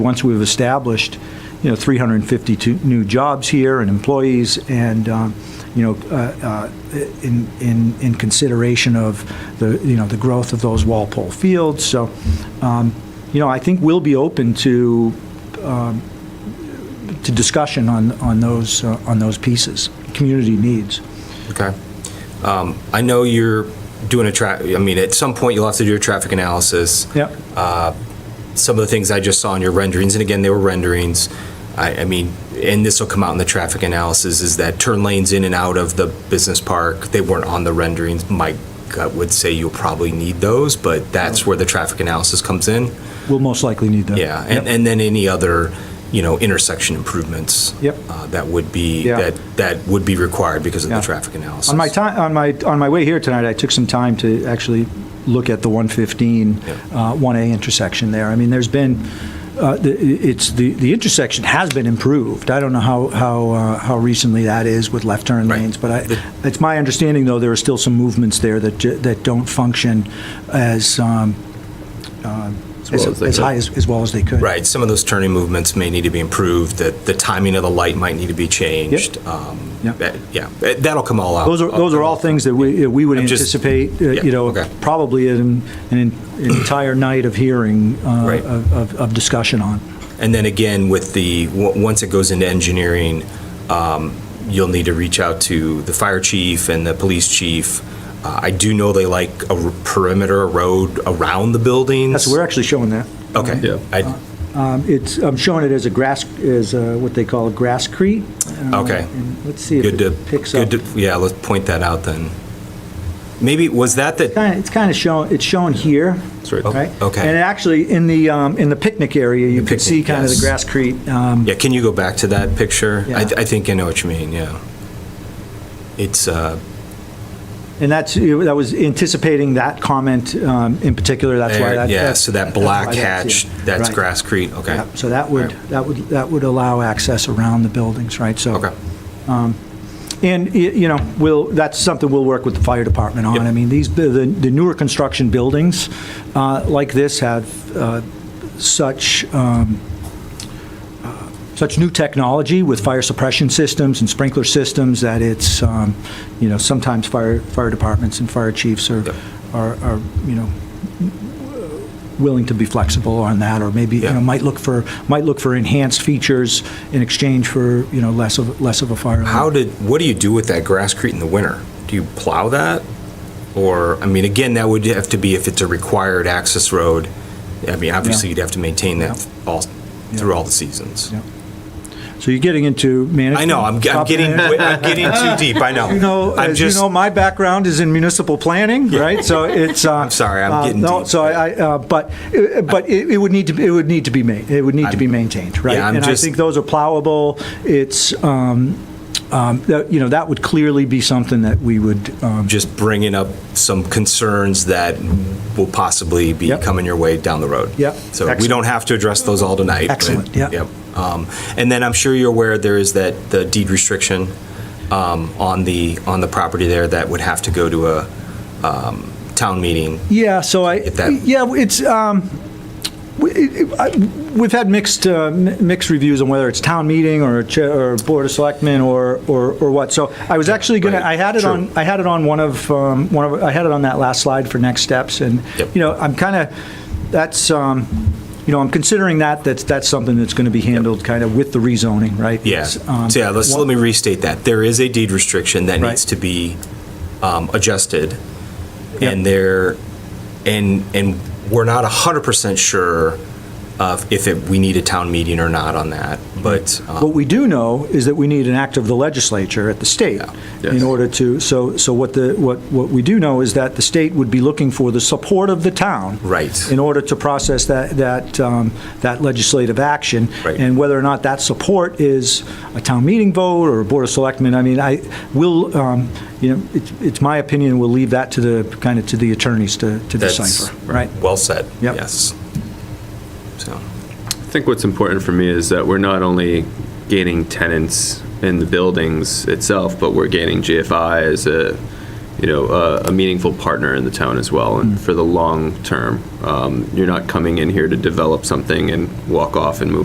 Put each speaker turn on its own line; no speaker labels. Once we've established, you know, 352 new jobs here and employees and, um, you know, uh, uh, in, in, in consideration of the, you know, the growth of those Walpole fields. So, um, you know, I think we'll be open to, um, to discussion on, on those, uh, on those pieces, community needs.
Okay. Um, I know you're doing a tra, I mean, at some point you'll have to do a traffic analysis.
Yep.
Some of the things I just saw in your renderings, and again, they were renderings, I, I mean, and this will come out in the traffic analysis, is that turn lanes in and out of the business park, they weren't on the renderings. My gut would say you'll probably need those, but that's where the traffic analysis comes in.
We'll most likely need that.
Yeah, and, and then any other, you know, intersection improvements.
Yep.
uh, That would be,
Yeah.
that, that would be required because of the
Yeah.
traffic analysis.
On my time, on my, on my way here tonight, I took some time to actually look at the 115,
Yeah.
uh, 1A intersection there. I mean, there's been, uh, the- it's, the, the intersection has been improved. I don't know how, how, uh, how recently that is with left turn
Right.
lanes, but
The-
I, it's my understanding, though, there are still some movements there that, ju- that don't function as, um, um,
well as
as
they
as
could.
high, as as well as they could.
Right, some of those turning movements may need to be improved, that the timing of the light might need to be changed. Um,
Yep.
that- Yeah, that- that'll come all out.
Those are, those are all things that we, uh, we would
I'm just-
anticipate, uh,
yeah,
you know,
okay.
probably an, an entire night of hearing, uh,
Right.
of, of- of discussion on.
Uh, And then again, with the, w- once it goes into engineering, um, you'll need to reach out to the fire chief and the police chief. Uh, I do know they like a r- perimeter road around the buildings.
That's, we're actually showing that.
Okay.
Yeah.
I-
Um, It's, I'm showing it as a grass, as uh, what they call a grasscrete. Uh,
Okay.
and Let's see if
Good to,
it picks
good
up.
to, yeah, let's point that out then. Maybe, was that the?
Kinda- It's kind of shown, it's shown here.
It's right there.
Right?
Okay.
And actually, in the, um, in the picnic area, you can
picnic,
see kind of the
yes.
grasscrete. um,
Yeah, can you go back to that picture? I,
Yeah.
I think I know what you mean, yeah. It's, uh,
And that's, that was anticipating that comment um, in particular, that's why
there-
that.
yeah,
that-
so that
that's why
black
that's
hatch,
here.
that's
Right.
Grasscrete, okay.
Yep, So that would,
All right.
that would, that would allow access around the buildings, right? So-
Okay,
And, y- you know, we'll, that's something we'll work with the fire department on.
Yep.
I mean, these, the the newer construction buildings uh, like this have uh, such, um, uh, such new technology with fire suppression systems and sprinkler systems that it's, um, you know, sometimes fire, fire departments and fire chiefs are,
Yep.
are, are, you know, willing to be flexible on that, or maybe, you
Yeah.
know, might look for, might look for enhanced features in exchange for, you know, less of, less of a fire. alarm.
how did, what do you do with that Grasscrete in the winter? Do you plow that? Or, I mean, again, that would have to be if it's a required access road. I mean, obviously,
Yeah.
you'd have to maintain that all, through all the seasons.
Yeah. So you're getting into management.
I know, I'm, I'm
top
getting,
management.
I'm getting too deep, I know.
You know,
I'm
as you
just-
know, my background is in municipal planning, right? So it's. uh,
I'm sorry, I'm
uh,
getting
no,
deep.
So I, I, uh, but, uh, but it it would need to, be- it would need to be made, it would need to be maintained, right?
yeah, I'm
And I
just-
think those are plowable. It's, um, um, that- you know, that would clearly be something that we would, um,
just bringing up some concerns that will possibly be
Yep.
coming your way down the road.
Yep.
So we
Excellent.
don't have to address those all tonight. but-
Excellent, yeah.
Yep. Um, And then I'm sure you're aware there is that, the deed restriction um, on the, on the property there that would have to go to a um, town meeting.
Yeah, so I,
If that-
yeah, it's, um, we- it- it- I- we've had mixed, uh, mi- mixed reviews on whether it's town meeting or, cha- or Board of Selectmen or, or or what. So I was actually gonna,
Right,
I had it
true.
on, I had it on one of, um, one of, I had it on that last slide for next steps. And,
Yep.
you know, I'm kind of, that's, um, you know, I'm considering that, that's, that's something that's going to be handled kind of with the rezoning, right?
Yeah.
It's, um,
So yeah, let's, let me restate that. There is a deed restriction that
Right.
needs to be um, adjusted.
Yep.
And there, and, and we're not 100% sure of if it, we need a town meeting or not on that, but, um,
What we do know is that we need an act of the legislature at the state
Yeah.
in
Yes.
order to, so, so what the, what, what we do know is that the state would be looking for the support of the town.
Right.
In order to process that, that, um, that legislative action.
Right.
And whether or not that support is a town meeting vote or a board of selectmen, I mean, I will, um, you know, it's, it's my opinion, we'll leave that to the, kind of to the attorneys to, to
That's-
decipher, right?
well said.
Yep.
Yes. So,
I think what's important for me is that we're not only gaining tenants in the buildings itself, but we're gaining GFI as a, you know, a, a meaningful partner in the town as well, and for the long term. Um, You're not coming in here to develop something and walk off and move